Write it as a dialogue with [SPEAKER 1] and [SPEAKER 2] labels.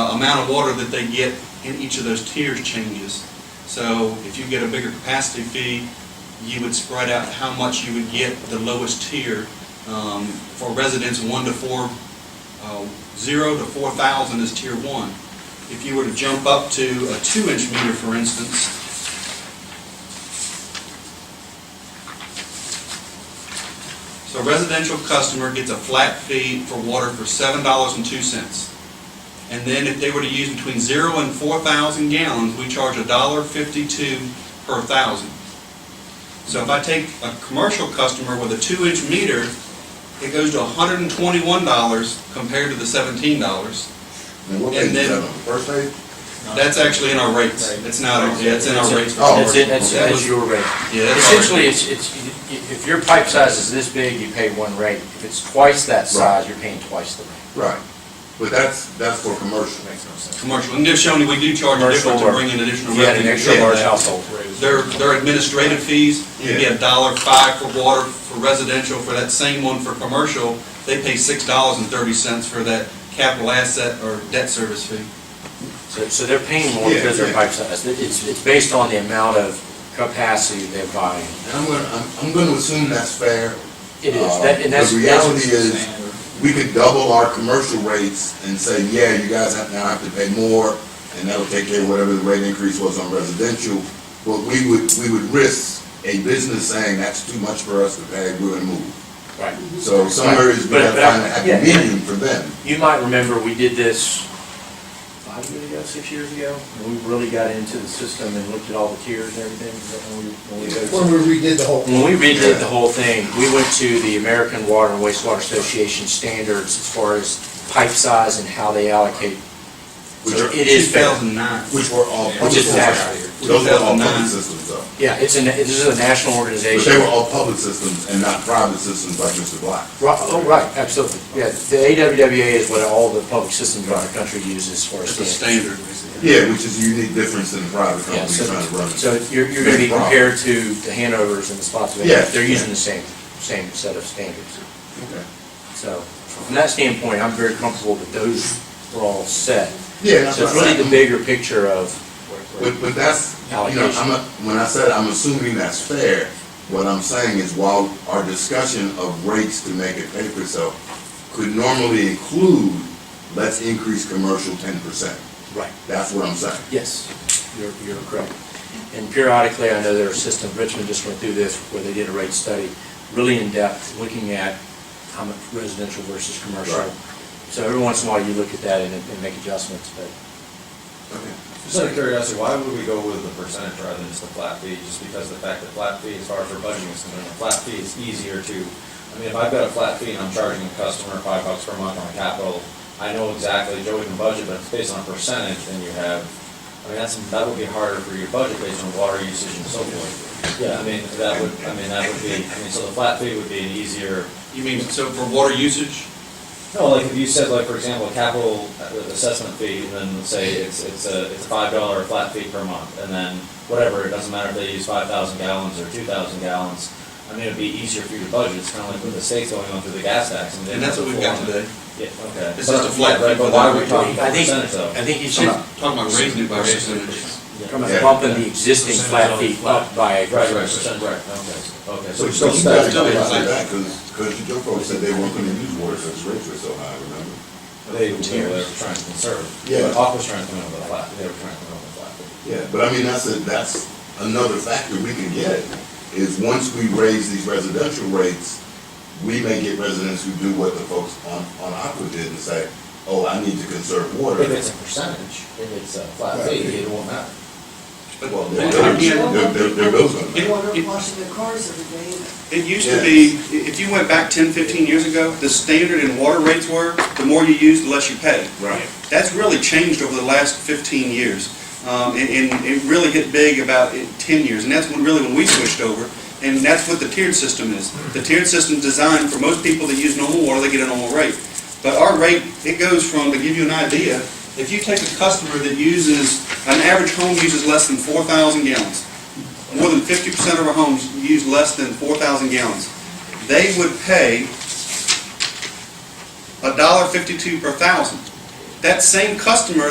[SPEAKER 1] uh, amount of water that they get in each of those tiers changes. So if you get a bigger capacity fee, you would spread out how much you would get the lowest tier. Um, For residents, one to four, uh, zero to four thousand is tier one. If you were to jump up to a two-inch meter, for instance, So a residential customer gets a flat fee for water for seven dollars and two cents. And then if they were to use between zero and four thousand gallons, we charge a dollar fifty-two per thousand. So if I take a commercial customer with a two-inch meter, it goes to hundred and twenty-one dollars compared to the seventeen dollars.
[SPEAKER 2] And what
[SPEAKER 1] And
[SPEAKER 2] page is
[SPEAKER 1] then-
[SPEAKER 2] that on, first page?
[SPEAKER 1] That's actually in our rates.
[SPEAKER 3] Right.
[SPEAKER 1] It's not, yeah, it's in our rates.
[SPEAKER 2] Oh.
[SPEAKER 3] That's it, that's,
[SPEAKER 1] That
[SPEAKER 3] that's
[SPEAKER 1] was-
[SPEAKER 3] your rate.
[SPEAKER 1] Yeah, that's our rate.
[SPEAKER 3] Essentially, it's, it's, i- i- if your pipe size is this big, you pay one rate. If it's twice that size, you're paying twice the rate.
[SPEAKER 2] Right. But that's, that's for commercial.
[SPEAKER 3] Makes no sense.
[SPEAKER 1] Commercial. And Shawnee, we do charge a
[SPEAKER 3] Commercial
[SPEAKER 1] difference to
[SPEAKER 3] or-
[SPEAKER 1] bring in additional
[SPEAKER 3] If
[SPEAKER 1] revenue.
[SPEAKER 3] you had an
[SPEAKER 1] We
[SPEAKER 3] extra
[SPEAKER 1] did
[SPEAKER 3] large
[SPEAKER 1] that.
[SPEAKER 3] household.
[SPEAKER 1] Their, their administrative fees, you get a dollar five for water, for residential, for that same one for commercial, they pay six dollars and thirty cents for that capital asset or debt service fee.
[SPEAKER 3] So, so they're paying more
[SPEAKER 2] Yeah,
[SPEAKER 3] because their
[SPEAKER 2] yeah.
[SPEAKER 3] pipe size. It's, it's based on the amount of capacity they're buying.
[SPEAKER 2] And I'm gonna, I'm, I'm gonna assume that's fair.
[SPEAKER 3] It is,
[SPEAKER 2] Uh,
[SPEAKER 3] that, and that's.
[SPEAKER 2] The
[SPEAKER 3] that's-
[SPEAKER 2] reality is, we could double our commercial rates and say, yeah, you guys have, now have to pay more, and that'll take care of whatever the rate increase was on residential, but we would, we would risk a business saying, that's too much for us to pay, we're gonna move.
[SPEAKER 3] Right.
[SPEAKER 2] So somewhere is, we gotta
[SPEAKER 3] But- but I-
[SPEAKER 2] find a happy
[SPEAKER 3] Mhm. yeah.
[SPEAKER 2] medium for them.
[SPEAKER 3] You might remember, we did this five years ago, six years ago, and we really got into the system and looked at all the tiers and everything. Is that when we- when we go to-
[SPEAKER 4] When we redid the whole.
[SPEAKER 3] When we redid the whole thing, we went to the American Water and Wastewater Association standards as far as pipe size and how they allocate.
[SPEAKER 2] Which
[SPEAKER 3] So
[SPEAKER 2] are
[SPEAKER 3] it is fair.
[SPEAKER 1] Two thousand nine.
[SPEAKER 2] Which were all.
[SPEAKER 3] Which is
[SPEAKER 2] public-
[SPEAKER 3] accurate.
[SPEAKER 2] Those were all public
[SPEAKER 1] 2009.
[SPEAKER 2] systems though.
[SPEAKER 3] Yeah, it's a, na- this is a national
[SPEAKER 2] But
[SPEAKER 3] organization.
[SPEAKER 2] they were all public systems and not private systems like Mr. Black.
[SPEAKER 3] Right, oh, right, absolutely. Yeah, the AWWA is what all the public systems around the country use as far as
[SPEAKER 1] It's a
[SPEAKER 3] standards.
[SPEAKER 1] standard.
[SPEAKER 2] Yeah, which is a unique difference in private
[SPEAKER 3] Yeah,
[SPEAKER 2] companies
[SPEAKER 3] so,
[SPEAKER 2] trying to run. it.
[SPEAKER 3] so you're, you're gonna be
[SPEAKER 2] Big problem.
[SPEAKER 3] compared to the Hanovers and
[SPEAKER 2] Yeah.
[SPEAKER 3] the Spotsylvania, they're using the same, same set of standards.
[SPEAKER 2] Okay.
[SPEAKER 3] So, from that standpoint, I'm very comfortable that those were all set.
[SPEAKER 2] Yeah, that's
[SPEAKER 3] So it's
[SPEAKER 2] what I'm
[SPEAKER 3] really
[SPEAKER 2] saying.
[SPEAKER 3] the bigger picture of.
[SPEAKER 2] But, but that's, you know, I'm, not- when I said I'm assuming that's fair, what I'm saying is while our discussion of rates to make it pay for itself could normally include, let's increase commercial ten percent.
[SPEAKER 3] Right.
[SPEAKER 2] That's what I'm saying.
[SPEAKER 3] Yes, you're, you're correct. And periodically, I know their system, Richmond just went through this, where they did a rate study, really in-depth, looking at how much residential versus commercial.
[SPEAKER 2] Right.
[SPEAKER 3] So every once in a while, you look at that and, and make adjustments, but
[SPEAKER 5] Just out of curiosity, why would we go with the percentage rather than just the flat fee? Just because the fact that flat fee, as far as our budgeting is concerned, a flat fee is easier to, I mean, if I've got a flat fee and I'm charging a customer five bucks per month on capital, I know exactly, Joey can budget, but if it's based on a percentage, then you have, I mean, that's, that would be harder for your budget based on water usage and so forth. Yeah, I mean, that would, I mean, that would be, I mean, so the flat fee would be an easier,
[SPEAKER 1] You mean, so for water usage,
[SPEAKER 5] no, like if you said like, for example, a capital assessment fee, and then let's say it's, it's a, it's a five dollar flat fee per month, and then whatever, it doesn't matter if they use five thousand gallons or two thousand gallons. I mean, it'd be easier for you to budget, it's kind of like with the state's going on through the gas tax and. they-
[SPEAKER 1] and that's what we've got today.
[SPEAKER 5] Yeah, okay.
[SPEAKER 1] It's just a flat
[SPEAKER 5] Right,
[SPEAKER 1] fee
[SPEAKER 5] But
[SPEAKER 1] for
[SPEAKER 5] why
[SPEAKER 1] that.
[SPEAKER 5] are we talking
[SPEAKER 3] I think,
[SPEAKER 5] percentage though?
[SPEAKER 3] I think you
[SPEAKER 1] Talking
[SPEAKER 3] should,
[SPEAKER 1] about- talking about raising it by percentage.
[SPEAKER 3] from
[SPEAKER 2] Yeah.
[SPEAKER 3] bumping the existing flat fee up by a
[SPEAKER 5] Right, right, percent, right, okay, okay.
[SPEAKER 2] So,
[SPEAKER 5] so
[SPEAKER 2] so you
[SPEAKER 5] it's-
[SPEAKER 2] guys don't like that, cause, cause your folks said they weren't gonna use water since rates were so high, remember?
[SPEAKER 5] They, they were trying to conserve.
[SPEAKER 2] Yeah.
[SPEAKER 5] Aqua was trying to come in with a flat, they were trying to come in with a flat fee.
[SPEAKER 2] Yeah, but I mean, that's a, that's another factor we can get, is once we raise these residential rates, we may get residents who do what the folks on, on Aqua did and say, oh, I need to conserve water.
[SPEAKER 5] If it's a percentage, if it's a flat fee, it won't matter.
[SPEAKER 1] But
[SPEAKER 2] Well,
[SPEAKER 1] then
[SPEAKER 2] they're-
[SPEAKER 1] again,
[SPEAKER 2] they're- they're- they're built on that.
[SPEAKER 1] It-
[SPEAKER 6] Water
[SPEAKER 1] it-
[SPEAKER 6] washing their cars every day.
[SPEAKER 1] It used to be, i- if you went back 10, 15 years ago, the standard in water rates were, the more you use, the less you pay.
[SPEAKER 2] Right.
[SPEAKER 1] That's really changed over the last 15 years. Um, And and it really hit big about in 10 years, and that's when, really when we switched over. And that's what the tiered system is. The tiered system is designed for most people that use normal water, they get a normal rate. But our rate, it goes from, to give you an idea, if you take a customer that uses, an average home uses less than 4,000 gallons, more than 50% of our homes use less than 4,000 gallons, they would pay $1.52 per thousand. That same customer